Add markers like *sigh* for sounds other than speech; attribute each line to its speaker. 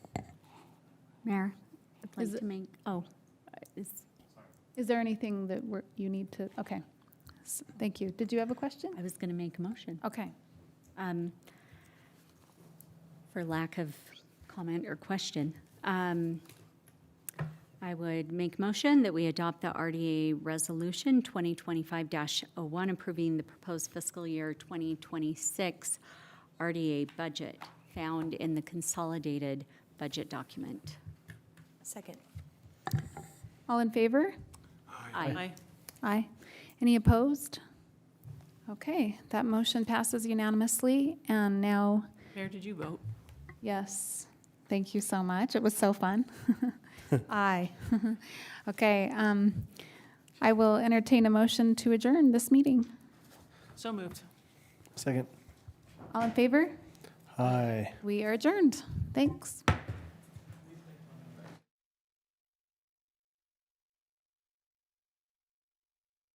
Speaker 1: Mayor, I'd
Speaker 2: Is
Speaker 1: like
Speaker 2: it-
Speaker 1: to make, oh, is-
Speaker 2: Is there anything that we're- you need to, okay. S- Thank you. Did you have a question?
Speaker 1: I was going to make a motion.
Speaker 2: Okay.
Speaker 1: Um, For lack of comment or question, um, I would make motion that we adopt the RDA Resolution 2025-01 approving the proposed fiscal year 2026 RDA budget found in the consolidated budget document.
Speaker 3: Second.
Speaker 2: All in favor?
Speaker 1: Aye.
Speaker 2: Aye. Any opposed? Okay, that motion passes unanimously, and now,
Speaker 4: Mayor, did you vote?
Speaker 2: yes, thank you so much. It was so fun. Aye. *laughs* Okay, um, I will entertain a motion to adjourn this meeting.
Speaker 4: So moved.
Speaker 5: Second.
Speaker 2: All in favor?
Speaker 5: Aye.
Speaker 2: We are adjourned. Thanks.